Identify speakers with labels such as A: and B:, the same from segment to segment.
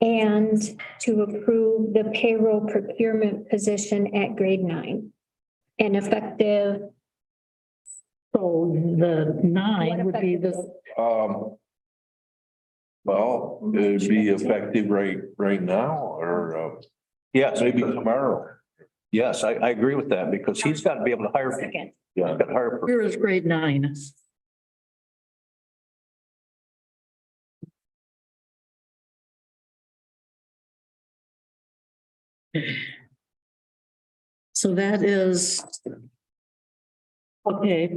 A: And to approve the payroll procurement position at grade nine. And effective,
B: So the nine would be this,
C: Um. Well, it'd be effective right, right now or uh,
D: Yes,
C: maybe tomorrow.
D: yes, I, I agree with that because he's got to be able to hire, he's
A: second,
C: Yeah,
D: got to hire. per-
B: here is grade nine. So that is. Okay,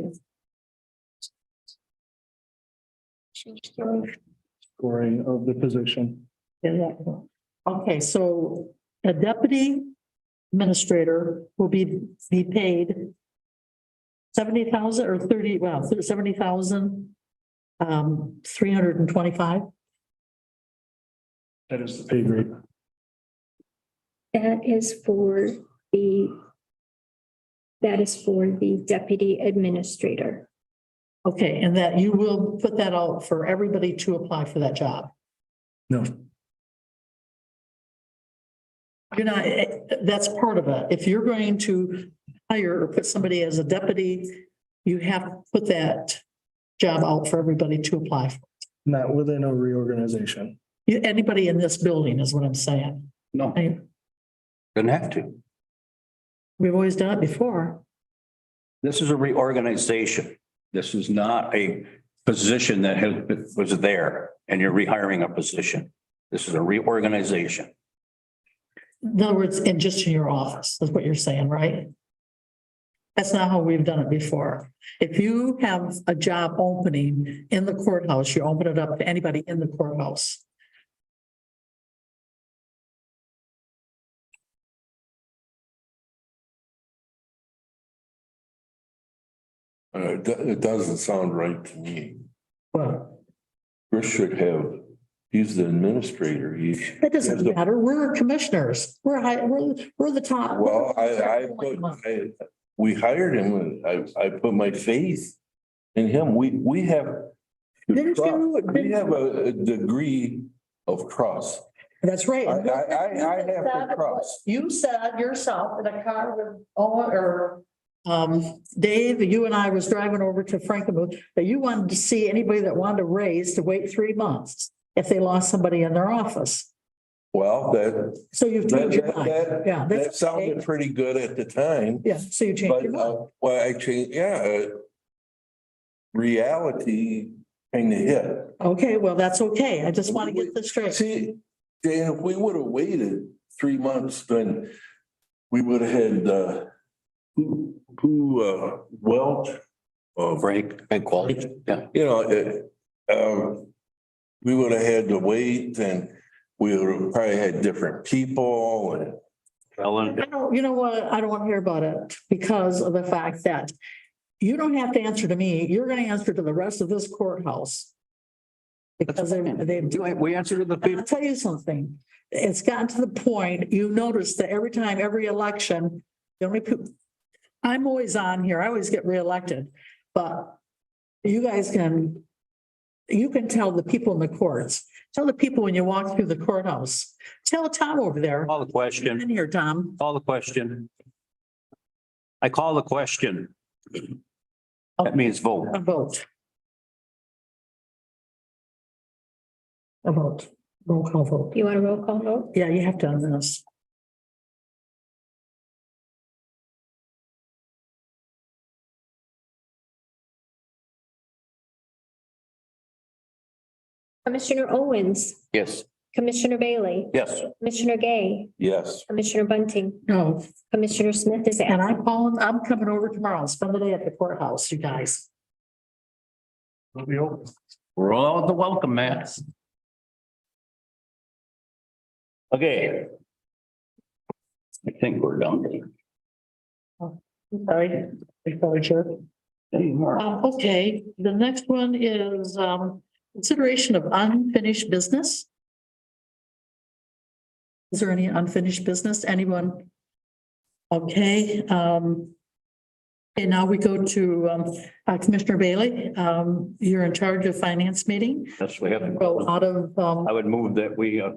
E: scoring of the position.
B: Yeah, yeah. Okay, so a deputy administrator will be, be paid seventy thousand or thirty, well, seventy thousand, um, three hundred and twenty-five.
E: That is the pay grade.
A: that is for the, that is for the deputy administrator.
B: Okay, and that you will put that out for everybody to apply for that job.
E: No,
B: You're not, eh, that's part of it. If you're going to hire or put somebody as a deputy, you have to put that job out for everybody to apply for.
E: not within a reorganization.
B: You- Anybody in this building is what I'm saying.
D: No,
B: I-
D: doesn't have to.
B: We've always done it before.
D: This is a reorganization. This is not a position that has, was there and you're rehiring a position. This is a reorganization.
B: In other words, and just in your office, is what you're saying, right? That's not how we've done it before. If you have a job opening in the courthouse, you open it up to anybody in the courthouse.
C: Uh, it, do- it doesn't sound right to me.
B: Well,
C: Chris should have, he's the administrator. He,
B: that doesn't matter. We're commissioners. We're high, we're, we're the top.
C: well, I, I, put- I, we hired him and I, I put my faith in him. We, we have.
B: Didn't you-
C: We have a, a degree of trust.
B: That's right.
C: I, I, I, I have to trust.
B: You said yourself in a car with Owen or um, Dave, you and I was driving over to Frankenmuth, that you wanted to see anybody that wanted a raise to wait three months if they lost somebody in their office.
C: Well, that,
B: So you've
C: that,
B: changed your mind.
C: that,
B: Yeah,
C: that, that
B: that's,
C: sounded pretty good at the time.
B: yeah, so you changed your
C: But,
B: mind.
C: uh, well, actually, yeah. uh, Reality kind of hit.
B: Okay, well, that's okay. I just want to get this straight.
C: See, Dan, if we would have waited three months, then we would have had, uh, who, who, uh, Welch. uh,
D: Frank and quality. Yeah,
C: You know, it, um, we would have had to wait and we would have probably had different people and
D: Ellen.
B: I don't, you know what? I don't want to hear about it because of the fact that you don't have to answer to me. You're going to answer to the rest of this courthouse. Because they, they
D: We answered to the
B: And
D: people.
B: I'll tell you something, it's gotten to the point, you notice that every time, every election, the only people. I'm always on here, I always get reelected, but you guys can. You can tell the people in the courts, tell the people when you walk through the courthouse, tell Tom over there,
D: Call the
B: come
D: question,
B: in here, Tom,
D: call the question. I call the question. That means vote.
B: a vote. A vote, roll call vote,
A: You want a roll call vote?
B: yeah, you have to on this.
A: Commissioner Owens,
D: Yes.
A: Commissioner Bailey,
D: Yes.
A: Commissioner Gay,
C: yes.
A: Commissioner Bunting,
B: No,
A: Commissioner Smith is
B: And
A: absent.
B: I'm calling, I'm coming over tomorrow and spend the day at the courthouse, you guys.
E: It'll be open.
D: Roll the welcome mat. Okay. I think we're done.
B: Sorry.
D: Anymore.
B: Um, okay, the next one is, um, consideration of unfinished business. Is there any unfinished business? Anyone? Okay, um. And now we go to, um, uh, Commissioner Bailey, um, you're in charge of finance meeting.
D: Yes, we have.
B: Go out of, um.
D: I would move that we uh,